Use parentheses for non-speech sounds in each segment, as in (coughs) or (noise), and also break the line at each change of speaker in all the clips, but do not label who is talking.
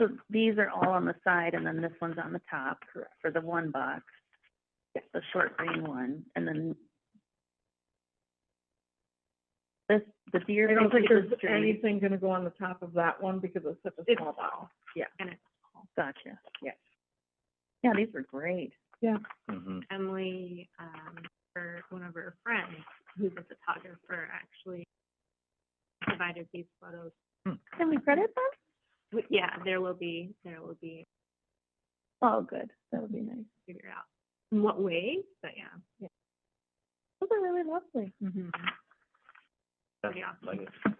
So these are all on the side and then this one's on the top
Correct.
for the one box. The short green one, and then this, the deer
I don't
faces
think there's
the tree.
anything gonna go on the top of that one because it's such a
It's-
small box.
Gotcha.
Yeah.
Yeah, these were great.
Mhm.
Emily, um, her, one of her friends, who's a photographer, actually provided these photos.
Can we credit them?
But yeah, there will be, there will be,
Oh, good. That would be nice.
figure out in what way, but yeah,
Those are really lovely.
Mm-hmm.
pretty awesome.
Like it.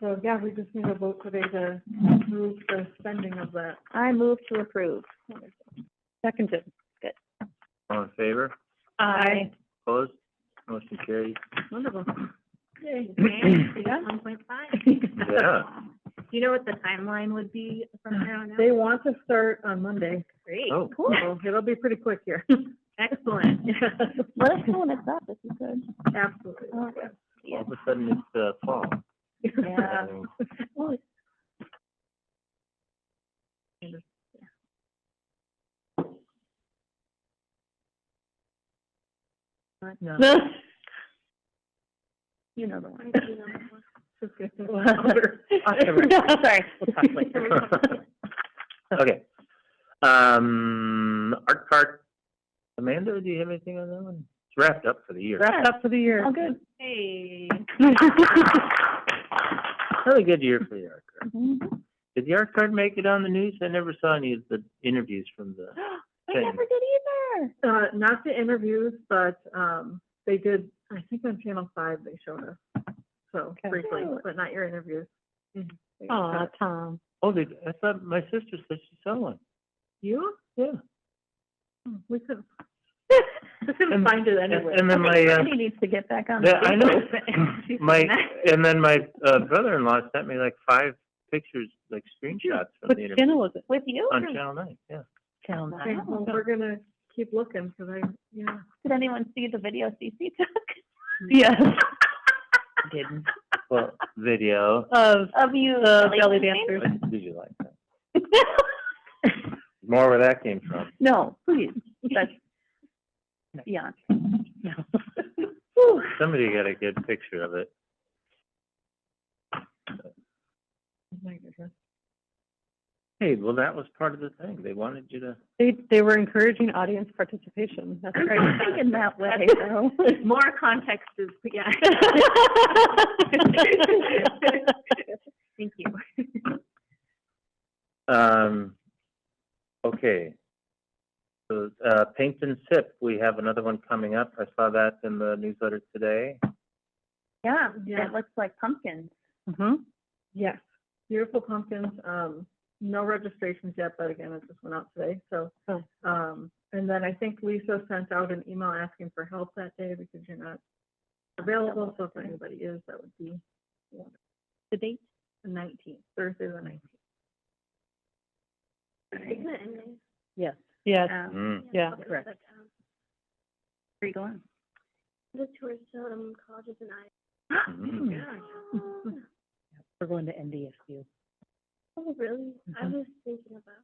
So, yeah, we just need a vote today to approve the spending of that.
I move to approve. Seconded.
All in favor?
Aye.
Opposed? Motion carries.
Wonderful.
Yay.
Okay, Uh, one point five.
(laughs)
Yeah.
Do you know what the timeline would be from here on out?
(laughs) They want to start on Monday.
Great,
Oh,
So It'll be pretty quick (laughs) here.
excellent.
(laughs)
Let us know when it's up, if you could.
Absolutely.
Oh, (laughs)
all of a sudden it's, uh, fall.
Yeah.
So,
Oh,
No.
You (laughs) know the one.
Just gonna go louder.
(laughs) Sorry. (laughs) We'll talk later.
Okay. Um, Art Cart, Amanda, do you have anything on that one? It's wrapped up for the year.
Wrapped up for the year.
All good.
Hey,
Really good year for the Art Cart.
Mhm.
Did the Art Cart make it on the news? I never saw any of the interviews from the,
(gasps) I never did either.
Uh, not the interviews, but, um, they did, I think on Channel Five, they showed us. So
Okay.
briefly,
Cute.
but not your interviews.
Mhm.
They
Aw, (laughs)
cut it.
Tom.
oh, they, I thought my sister said she saw one.
You?
Yeah.
Hmm, We couldn't, we couldn't
And-
find it
And
anywhere.
and then my,
(laughs)
uh,
He needs to get back on. the
Yeah, I know.
(laughs)
(laughs)
game.
My, and then my, uh, brother-in-law sent me like five pictures, like screenshots from the interview
was it? With you?
on Channel Nine, yeah.
Channel
Okay,
nine.
well, we're gonna keep looking, cause I, yeah.
Did anyone see the video CC took? Yes. Mm. (laughs) Didn't.
Well, video.
Of
Of you.
the
like,
belly
dancing?
dancers.
(laughs)
What Did you like that? More where that came from.
No, (laughs) please, that's, yeah. (laughs)
Somebody got a good picture of it.
Oh
Hey, well, that was part of the thing. They wanted you to,
They, they were encouraging audience participation, that's
(coughs) I'm (laughs) thinking that way, though. (laughs)
more context is, yeah. Thank you.
um, okay. So, uh, Paint and Sip, we have another one coming up. I saw that in the newsletter today.
Yeah,
Yeah.
it looks like pumpkins.
Yes, beautiful pumpkins, um, no registrations yet, but again, it just went out today, so.
Oh.
Um, and then I think Lisa sent out an email asking for help that day because you're not available, so if anybody is, that would be
The date?
the nineteenth, Thursday the nineteenth.
Yes.
Yes.
Um,
Mm.
Yeah,
correct. Where you going?
um, The tourist um, colleges and I.
Mhm.
We're going to NDSU.
Oh, really? I was thinking about.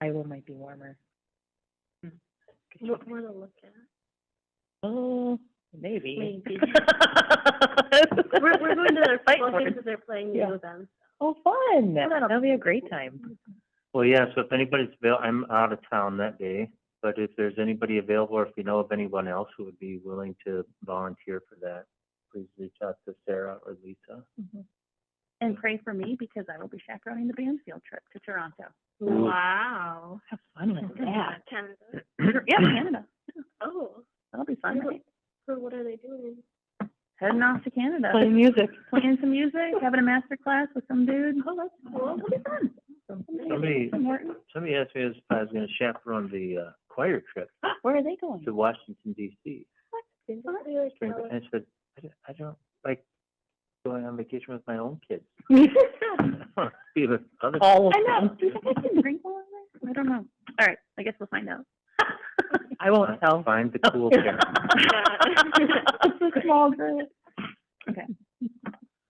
Iowa might be warmer.
What want to look at?
Oh, maybe.
Maybe.
(laughs) We're,
We're,
(laughs)
we're going to their
Fight
football
for
games
it.
that they're playing
Yeah.
new events.
Oh, fun. That'll be a great time.
Well, yeah, so if anybody's avail, I'm out of town that day, but if there's anybody available, or if you know of anyone else who would be willing to volunteer for that, please reach out to Sarah or Lisa.
And pray for me because I will be chaperoning the band field trip to Toronto.
Ooh.
Wow.
Oh, Have fun with
Canada.
(laughs) Yeah, Canada.
Oh,
That'll be fun,
Yeah.
right?
so what are they doing?
Heading off to Canada.
music.
(laughs) Playing some music, having a master class with some dude. Oh, that's cool. It'll be fun.
Somebody-
From Morton.
(clears throat) Somebody asked me if I was gonna chaperone the, uh, choir trip
Where are they going?
to Washington DC.
Fun.
And I said, I don't, I don't like going on vacation with my own kids. (laughs) I wanna Be with other.
All
(laughs) I know. Do you think I can drink while I'm there? I don't know. All right, I guess we'll find out. (laughs)
I (laughs)
(laughs) Find the cool parents.
It's a small group. Okay.